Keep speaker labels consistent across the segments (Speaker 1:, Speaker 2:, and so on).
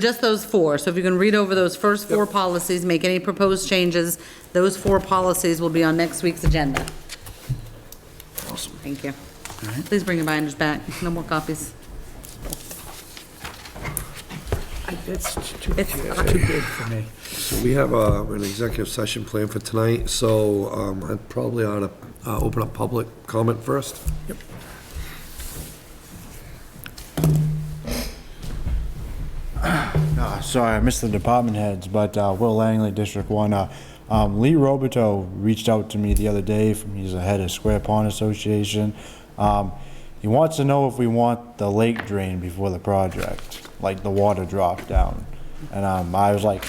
Speaker 1: Just those four, so if you can read over those first four policies, make any proposed changes, those four policies will be on next week's agenda. Awesome. Thank you. Please bring your binders back, no more copies.
Speaker 2: That's too,
Speaker 1: It's-
Speaker 2: too big for me.
Speaker 3: So we have uh, an executive session planned for tonight, so um, I probably ought to uh, open up public comment first.
Speaker 4: Uh, Sorry, I missed the department heads, but uh, Will Langley, District 1. uh, um, Lee Roberto reached out to me the other day, from he's the head of Square Pond Association. Um, He wants to know if we want the lake drain before the project, like the water drop down. And um, I was like,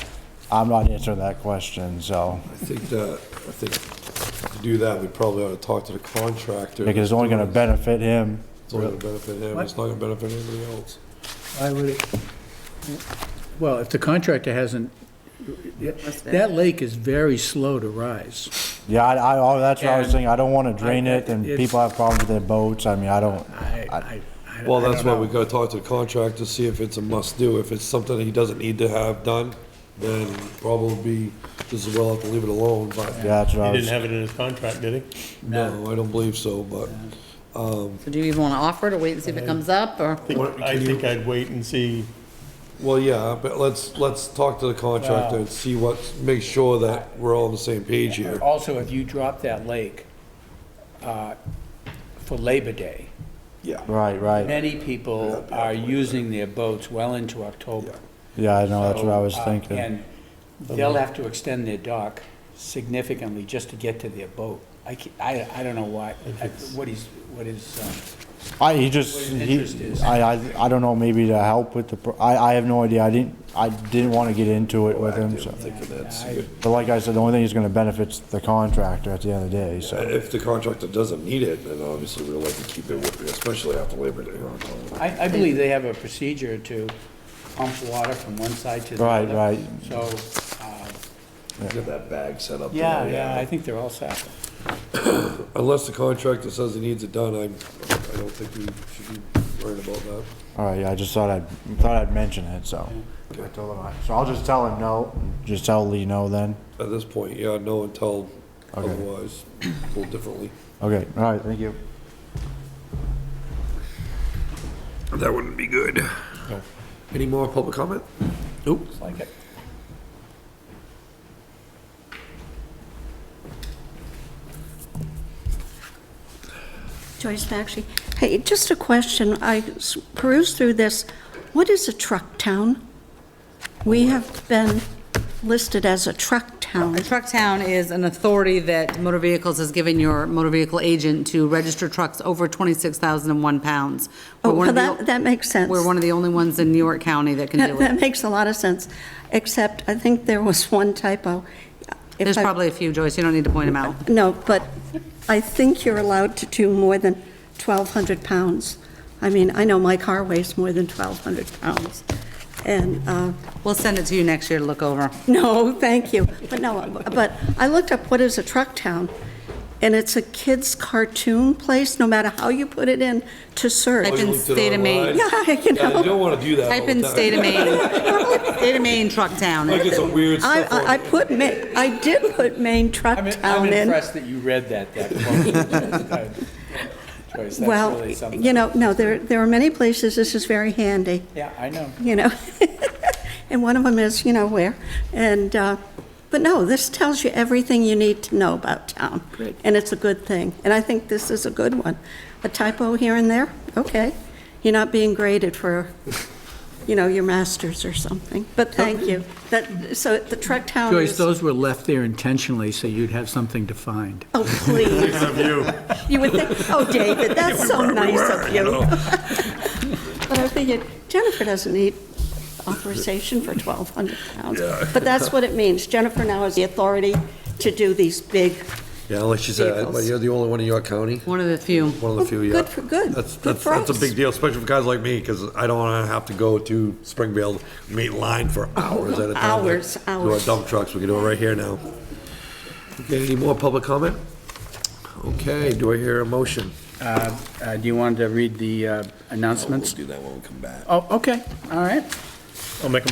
Speaker 4: I'm not answering that question, so,
Speaker 3: I think that, I think to do that, we probably ought to talk to the contractor.
Speaker 4: because it's only going to benefit him.
Speaker 3: It's only gonna benefit him, it's not gonna benefit anybody else.
Speaker 2: I would, well, if the contractor hasn't, that lake is very slow to rise.
Speaker 4: Yeah, I, I, oh, that's what I was
Speaker 2: And
Speaker 4: saying, I don't want to drain
Speaker 2: I-
Speaker 4: it, and
Speaker 2: it's-
Speaker 4: people have problems with their boats, I mean, I don't,
Speaker 2: I, I, I
Speaker 3: Well,
Speaker 2: I
Speaker 3: that's
Speaker 2: don't
Speaker 3: why
Speaker 2: know.
Speaker 3: we gotta talk to the contractor, see if it's a must-do. If it's something that he doesn't need to have done, then probably just as well have to leave it alone, but
Speaker 4: yeah, that's what I
Speaker 5: He
Speaker 4: was.
Speaker 5: didn't have it in his contract, did he?
Speaker 3: no, I don't believe so, but.
Speaker 1: So do you even want to offer it, or wait and see if it comes up, or?
Speaker 5: I think- I think I'd wait and see.
Speaker 3: Well, yeah, but let's, let's talk to the contractor and see what, make sure that we're all on the same page here.
Speaker 2: Also, if you drop that lake uh, for Labor Day,
Speaker 3: Yeah.
Speaker 4: Right, right,
Speaker 2: many people are using their boats well into October.
Speaker 4: yeah, I know, that's what I was
Speaker 2: So, uh,
Speaker 4: thinking.
Speaker 2: And they'll have to extend their dock significantly just to get to their boat. I, ca- I, I don't know why, I- what he's, what his, um,
Speaker 4: I, he just,
Speaker 2: What his
Speaker 4: he-
Speaker 2: interest is.
Speaker 4: I, I, I don't know, maybe to help with the, pro- I, I have no idea, I didn't, I didn't wanna get into it with him, so. But like I said, the only thing that's gonna benefit's the contractor at the end of the day, so.
Speaker 3: If the contractor doesn't need it, then obviously we'd like to keep it with, especially after Labor Day.
Speaker 2: I, I believe they have a procedure to pump water from one side to the
Speaker 4: Right,
Speaker 2: other.
Speaker 4: right.
Speaker 2: So, uh,
Speaker 3: Get that bag set up.
Speaker 2: yeah, yeah, I think they're all set.
Speaker 3: Unless the contractor says he needs it done, I, I don't think we should be worried about that.
Speaker 4: Alright, yeah, I just thought I'd, thought I'd mention it, so. I told him, I- so I'll just tell him no, just tell Lee no then,
Speaker 3: At this point, yeah, no until
Speaker 4: Okay.
Speaker 3: otherwise, pulled differently.
Speaker 4: okay, alright, thank you.
Speaker 3: That wouldn't be good. Any more public comment? Nope.
Speaker 2: Like it.
Speaker 6: Joyce Maxey. Hey, just a question. I s- perused through this. What is a truck town? We have been listed as a truck town.
Speaker 1: A truck town is an authority that motor vehicles has given your motor vehicle agent to register trucks over 26,001 pounds. We're
Speaker 6: Oh,
Speaker 1: one of the
Speaker 6: that-
Speaker 1: o-
Speaker 6: that makes sense.
Speaker 1: We're one of the only ones in New York County that can
Speaker 6: That
Speaker 1: do it.
Speaker 6: that makes a lot of sense, except I think there was one typo. If
Speaker 1: There's
Speaker 6: I-
Speaker 1: probably a few, Joyce, you don't need to point them out.
Speaker 6: No, but I think you're allowed to do more than 1,200 pounds. I mean, I know my car weighs more than 1,200 pounds. And uh,
Speaker 1: We'll send it to you next year to look over.
Speaker 6: No, thank you. But no, but I looked up what is a truck town, and it's a kids' cartoon place, no matter how you put it in, to
Speaker 2: Oh,
Speaker 1: Type
Speaker 6: search.
Speaker 1: in
Speaker 3: looked it
Speaker 1: state of Maine.
Speaker 3: online?
Speaker 6: Yeah, you
Speaker 3: Yeah, you don't
Speaker 6: know,
Speaker 3: wanna do that all
Speaker 1: Type in
Speaker 3: the time.
Speaker 1: state of Maine, state of Maine truck town.
Speaker 3: Like it's a weird
Speaker 6: I,
Speaker 3: stuff on
Speaker 6: I- I
Speaker 3: there.
Speaker 6: put Ma, I did put Maine Truck
Speaker 2: I'm,
Speaker 6: Town
Speaker 2: I'm
Speaker 6: in.
Speaker 2: impressed that you read that, that close. Joyce, that's
Speaker 6: Well,
Speaker 2: really something.
Speaker 6: you know, no, there, there are many places this is very handy,
Speaker 2: Yeah, I know.
Speaker 6: you know. And one of them is, you know, where, and, uh, but no, this tells you everything you need to know about town. And it's a good thing, and I think this is a good one. A typo here and there, okay. You're not being graded for, you know, your masters or something, but thank you. That, so the truck town
Speaker 2: Oh. Joyce,
Speaker 6: is, oh,
Speaker 2: those were left there intentionally so you'd have something to find.
Speaker 6: Oh, please. You would think, oh, David, that's so nice of you. But I figured Jennifer doesn't need authorization for 1,200 pounds. But that's what it means. Jennifer now has the authority to do these big,
Speaker 3: Yeah, like she said,
Speaker 6: Vehicles.
Speaker 3: but you're the only one in York County.
Speaker 1: One of the few.
Speaker 3: One of the
Speaker 6: Well,
Speaker 3: few, yeah.
Speaker 6: good for- good.
Speaker 3: That's,
Speaker 6: Good
Speaker 3: that's,
Speaker 6: for
Speaker 3: that's a
Speaker 6: us.
Speaker 3: big deal, especially for guys like me, because I don't want to have to go to Springfield, meet line for hours at a time.
Speaker 6: Hours,
Speaker 3: Do our
Speaker 6: hours.
Speaker 3: dump trucks, we can do it right here now. Okay, any more public comment? Okay, do I hear a motion?
Speaker 2: Uh, uh, Do you want to read the uh, announcements?
Speaker 3: that when we come back.
Speaker 2: Oh, okay, all right.
Speaker 5: I'll make a